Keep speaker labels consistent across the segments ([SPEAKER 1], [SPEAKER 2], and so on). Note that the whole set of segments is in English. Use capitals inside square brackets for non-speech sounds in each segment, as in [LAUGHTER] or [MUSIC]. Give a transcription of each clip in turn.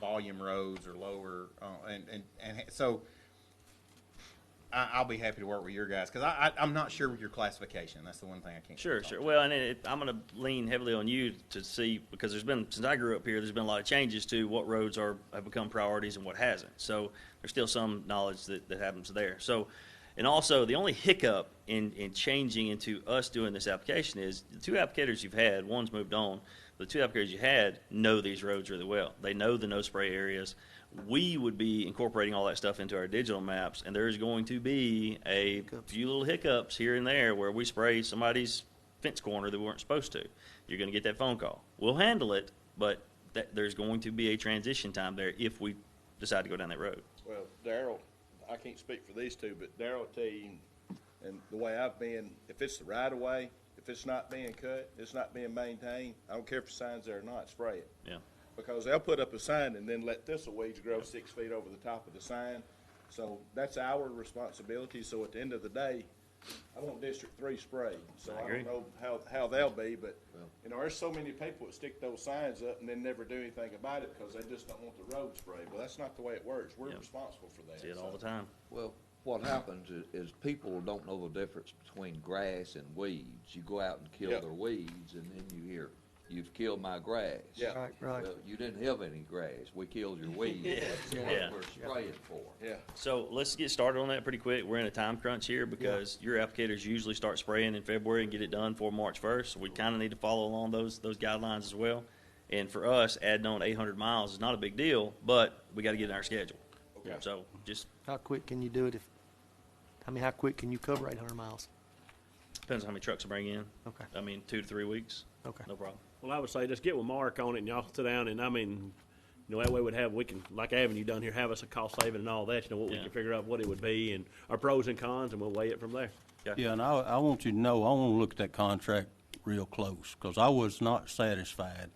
[SPEAKER 1] volume roads or lower, uh, and, and, and so I, I'll be happy to work with your guys, because I, I, I'm not sure with your classification, that's the one thing I can't.
[SPEAKER 2] Sure,
[SPEAKER 1] talk
[SPEAKER 2] sure.
[SPEAKER 1] to.
[SPEAKER 2] Well, and it, I'm going to lean heavily on you to see because there's been since I grew up here, there's been a lot of changes to what roads are have become priorities and what hasn't. So there's still some knowledge that, that happens there. So, and also the only hiccup in in changing into us doing this application is the two applicators you've had. One's moved on. but The two applicators you had know these roads really well. They know the no spray areas. We would be incorporating all that stuff into our digital maps, and there's going to be a few little hiccups here and there where we spray somebody's fence corner that we weren't supposed to. You're going to get that phone call. We'll handle it, but that, there's going to be a transition time there if we decide to go down that road.
[SPEAKER 3] Well, Daryl, I can't speak for these two, but Daryl will tell you, and the way I've been, if it's the right of way, if it's not being cut, it's not being maintained, I don't care if the sign's there or not, spray it.
[SPEAKER 2] Yeah.
[SPEAKER 3] Because they'll put up a sign and then let thistle weeds grow six feet over the top of the sign. So that's our responsibility, so at the end of the day, I want District Three sprayed. So
[SPEAKER 2] I
[SPEAKER 3] I
[SPEAKER 2] agree.
[SPEAKER 3] don't know how, how they'll be, but, you know, there's so many people that stick those signs up and then never do anything about it because they just don't want the road sprayed. Well, that's not the way it works. We're
[SPEAKER 2] Yep.
[SPEAKER 3] responsible for that.
[SPEAKER 2] See it all the
[SPEAKER 3] so.
[SPEAKER 2] time.
[SPEAKER 4] Well, what happens is, is people don't know the difference between grass and weeds. You go out and kill
[SPEAKER 3] Yeah.
[SPEAKER 4] their weeds, and then you hear, "You've killed my grass."
[SPEAKER 3] Yeah.
[SPEAKER 5] Right, right.
[SPEAKER 4] Well, you didn't have any grass. We killed your weeds. That's what
[SPEAKER 2] Yeah.
[SPEAKER 4] we're spraying for.
[SPEAKER 3] Yeah,
[SPEAKER 2] So let's get started on that pretty quick. We're in a time crunch here because your applicators usually start spraying in February and get it done for March 1st. So we kind of need to follow along those those guidelines as well. And for us, adding on 800 miles is not a big deal, but we got to get in our schedule.
[SPEAKER 3] Okay.
[SPEAKER 2] So just
[SPEAKER 5] How quick can you do it if, I mean, how quick can you cover eight hundred miles?
[SPEAKER 2] depends on how many trucks I bring in.
[SPEAKER 5] Okay.
[SPEAKER 2] I mean, two to three weeks.
[SPEAKER 5] Okay.
[SPEAKER 2] No problem.
[SPEAKER 6] Well, I would say just get with Mark on it and y'all sit down and I mean, you know, that way we'd have, we can, like Avenue done here, have us a cost saving and all that, you know, what we
[SPEAKER 2] Yeah.
[SPEAKER 6] can figure out what it would be and our pros and cons and we'll weigh it from there.
[SPEAKER 7] Yeah, and I, I want you to know, I want to look at that contract real close, because I was not satisfied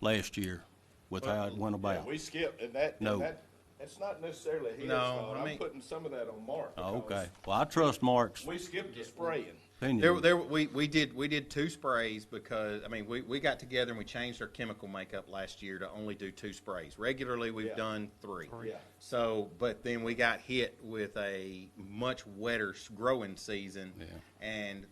[SPEAKER 7] last year with how it went
[SPEAKER 3] yeah,
[SPEAKER 7] about.
[SPEAKER 3] we skip, and that,
[SPEAKER 7] No.
[SPEAKER 3] and that, it's not necessarily his
[SPEAKER 1] No,
[SPEAKER 3] fault,
[SPEAKER 1] I
[SPEAKER 3] I'm
[SPEAKER 1] mean-
[SPEAKER 3] putting some of that on Mark.
[SPEAKER 7] Oh,
[SPEAKER 3] because
[SPEAKER 7] Okay, well, I trust Mark's
[SPEAKER 3] We skipped the spraying,
[SPEAKER 1] There,
[SPEAKER 7] opinion.
[SPEAKER 1] there, we, we did, we did two sprays because, I mean, we, we got together and we changed our chemical makeup last year to only do two sprays. Regularly, we've
[SPEAKER 3] Yeah.
[SPEAKER 1] done three.
[SPEAKER 3] yeah.
[SPEAKER 1] So, but then we got hit with a much wetter s- growing season,
[SPEAKER 7] Yeah.
[SPEAKER 1] and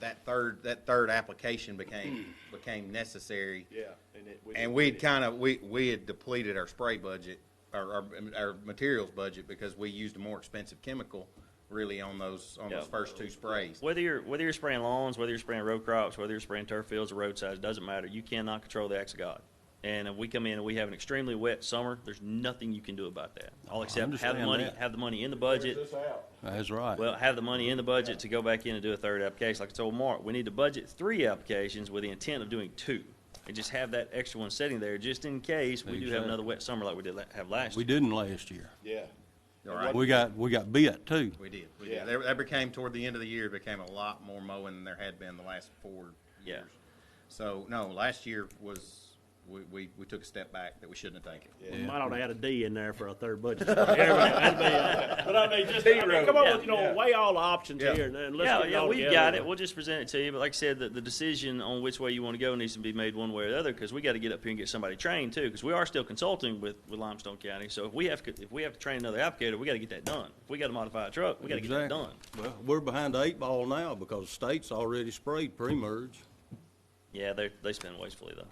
[SPEAKER 1] that third that third application became became necessary.
[SPEAKER 3] Yeah, and it.
[SPEAKER 1] And
[SPEAKER 3] didn't
[SPEAKER 1] we had
[SPEAKER 3] get it.
[SPEAKER 1] kind of we we had depleted our spray budget, our, our our materials budget because we used a more expensive chemical, really on those on those
[SPEAKER 2] Yeah.
[SPEAKER 1] first two sprays.
[SPEAKER 2] Whether you're whether you're spraying lawns, whether you're spraying row crops, whether you're spraying turf fields or roadsides, doesn't matter. You cannot control the acts of God. And if we come in and we have an extremely wet summer, there's nothing you can do about that. All except have the
[SPEAKER 7] understand
[SPEAKER 2] money
[SPEAKER 7] that.
[SPEAKER 2] have the money in the
[SPEAKER 3] Figures
[SPEAKER 2] budget.
[SPEAKER 3] this out.
[SPEAKER 7] That's right.
[SPEAKER 2] Well, have the money in the budget to go back in and do a third application. Like I told Mark, we need to budget three applications with the intent of doing two. And just have that extra one sitting there just in case we do have
[SPEAKER 7] Exactly.
[SPEAKER 2] another wet summer like we did la- have last
[SPEAKER 7] We
[SPEAKER 2] year.
[SPEAKER 7] didn't last year.
[SPEAKER 3] Yeah.
[SPEAKER 1] All right,
[SPEAKER 7] We got, we got bit, too.
[SPEAKER 1] we did. We
[SPEAKER 3] Yeah.
[SPEAKER 1] did. That, that became toward the end of the year. Became a lot more mowing than there had been the last four
[SPEAKER 2] Yeah.
[SPEAKER 1] So no, last year was we, we, we took a step back that we shouldn't have taken.
[SPEAKER 6] We Might ought to add a D in there for a third
[SPEAKER 2] [LAUGHS]
[SPEAKER 6] budget. That'd be, uh, But I mean, just, I mean, come on, with, you know, weigh all the options
[SPEAKER 1] Yeah.
[SPEAKER 6] here and then let's
[SPEAKER 2] Yeah,
[SPEAKER 6] get it
[SPEAKER 2] yeah,
[SPEAKER 6] all
[SPEAKER 2] we've
[SPEAKER 6] together.
[SPEAKER 2] got it. We'll just present it to you. But like I said, the, the decision on which way you want to go needs to be made one way or the other because we got to get up here and get somebody trained too because we are still consulting with, with Limestone County. So if we have to- if we have to train another applicator, we got to get that done. If we got to modify a truck, we got to get that
[SPEAKER 7] Exactly.
[SPEAKER 2] done.
[SPEAKER 7] Well, we're behind the eight ball now, because the state's already sprayed [LAUGHS] pre-merge.
[SPEAKER 2] Yeah, they they spend wastefully though.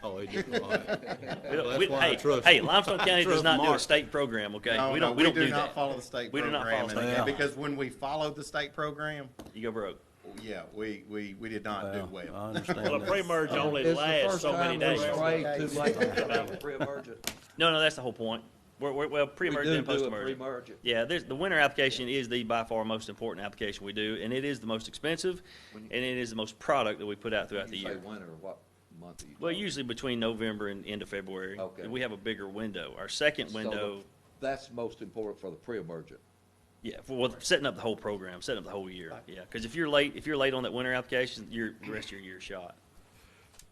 [SPEAKER 7] Oh, it didn't, all right.
[SPEAKER 2] We don't-
[SPEAKER 7] that's
[SPEAKER 2] we-
[SPEAKER 7] why I
[SPEAKER 2] hey,
[SPEAKER 7] trust-
[SPEAKER 2] hey, Limestone County does
[SPEAKER 7] trust
[SPEAKER 2] not do a
[SPEAKER 7] Mark.
[SPEAKER 2] state program, okay?
[SPEAKER 1] No,
[SPEAKER 2] we
[SPEAKER 1] no,
[SPEAKER 2] don't, we don't do
[SPEAKER 1] not
[SPEAKER 2] that.
[SPEAKER 1] follow the state
[SPEAKER 2] We do not
[SPEAKER 1] program, and-
[SPEAKER 2] follow
[SPEAKER 1] and
[SPEAKER 7] state program.
[SPEAKER 1] because when we followed the state program,
[SPEAKER 2] You go broke.
[SPEAKER 1] yeah, we, we, we did not do
[SPEAKER 7] Well, I
[SPEAKER 1] well.
[SPEAKER 7] understand
[SPEAKER 6] Well, a
[SPEAKER 7] that.
[SPEAKER 6] pre-merge only
[SPEAKER 4] It's the
[SPEAKER 6] lasts
[SPEAKER 4] first
[SPEAKER 6] so
[SPEAKER 4] time we
[SPEAKER 6] many days.
[SPEAKER 4] sprayed too late to have a pre-emergent.
[SPEAKER 2] [LAUGHS] No, no, that's the whole point. We're, we're, well,
[SPEAKER 4] We
[SPEAKER 2] pre-emergent
[SPEAKER 4] do
[SPEAKER 2] and
[SPEAKER 4] do a
[SPEAKER 2] post-emergent.
[SPEAKER 4] pre-emergent.
[SPEAKER 2] Yeah, there's, the winter application is the by far most important application we do, and it is the most expensive, and it is the most product that we put out throughout the
[SPEAKER 4] You say
[SPEAKER 2] year.
[SPEAKER 4] winter, what month are you?
[SPEAKER 2] Well,
[SPEAKER 4] talking?
[SPEAKER 2] usually between November and end of February.
[SPEAKER 4] Okay.
[SPEAKER 2] We have a bigger window. Our second
[SPEAKER 4] So
[SPEAKER 2] window,
[SPEAKER 4] the- That's most important for the pre-emergent.
[SPEAKER 2] yeah, for, well, setting up the whole program, setting up the whole year. Yeah, because if you're late, if you're late on that winter application, you're, the rest of your year's shot.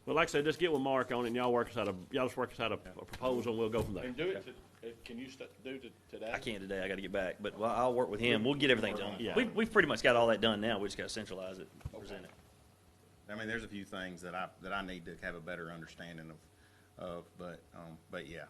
[SPEAKER 6] Well, like I said, just get with Mark on it and y'all work us out a, y'all just work us out a a proposal and we'll go from there.
[SPEAKER 3] And do it, to- uh, can you st- do it today?
[SPEAKER 2] I can't today. I got to get back, but well, I'll work with him. We'll get everything done.
[SPEAKER 6] Yeah.
[SPEAKER 2] We've, we've pretty much got all that done now. We just got to centralize it, present it.
[SPEAKER 1] I mean, there's a few things that I, that I need to have a better understanding of, of, but, um, but yeah,